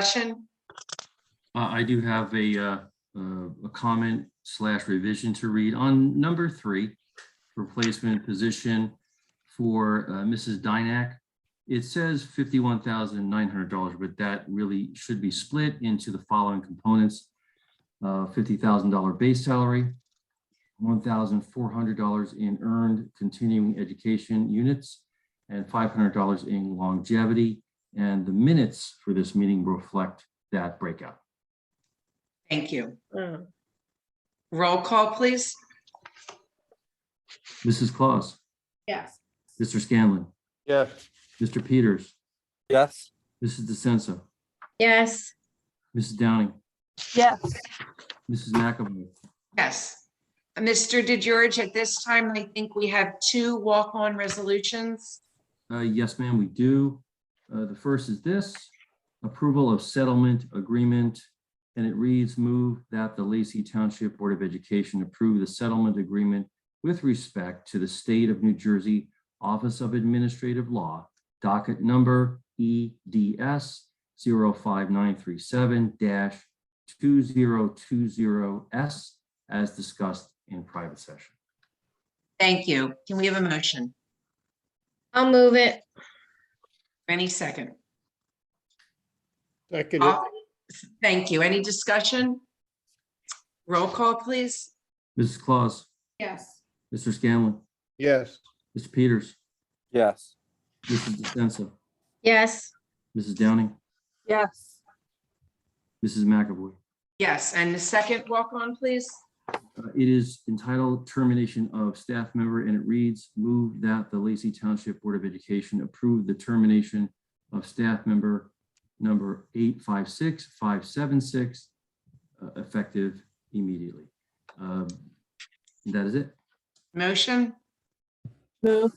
discussion? Uh, I do have a, uh, uh, a comment slash revision to read on number three, replacement position for, uh, Mrs. Dynak. It says fifty-one thousand nine hundred dollars, but that really should be split into the following components. Uh, fifty thousand dollar base salary, one thousand four hundred dollars in earned continuing education units, and five hundred dollars in longevity. And the minutes for this meeting reflect that breakout. Thank you. Mm. Roll call, please. Mrs. Claus. Yes. Mr. Scanlon. Yes. Mr. Peters. Yes. Mrs. DeSenza. Yes. Mrs. Downing. Yes. Mrs. McAvoy. Yes. Mr. DeGeorge, at this time, I think we have two walk-on resolutions. Uh, Yes, ma'am, we do. Uh, The first is this, approval of settlement agreement. And it reads, move that the Lacey Township Board of Education approve the settlement agreement with respect to the State of New Jersey Office of Administrative Law, docket number E EDS 05937-2020S, as discussed in private session. Thank you. Can we have a motion? I'll move it. Any second? Second, All- Thank you. Any discussion? Roll call, please. Mrs. Claus, Yes. Mr. Scanlon, yes. Mr. Peters, Yes. Mrs. DeSenza. Yes. Mrs. Downing, Yes. Mrs. McAvoy. Yes, and the second walk-on, please. Uh, It is entitled Termination of Staff Member, and it reads, move that the Lacey Township Board of Education approve the termination of staff member number 856576, uh, effective immediately. Um, That is it. Motion, Move.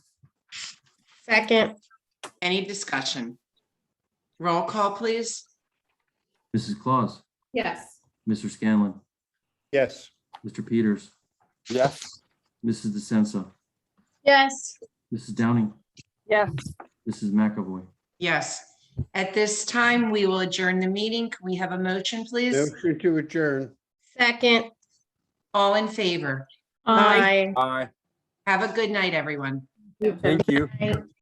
Second. any discussion? Roll call, please. Mrs. Claus, Yes. Mr. Scanlon, Yes. Mr. Peters, Yes. Mrs. DeSenza, Yes. Mrs. Downing, Yes. Mrs. McAvoy. Yes. At this time, we will adjourn the meeting. Can we have a motion, please? Motion to adjourn. Second. All in favor? Aye. Aye. Aye. Have a good night, everyone. Thank you. Aye.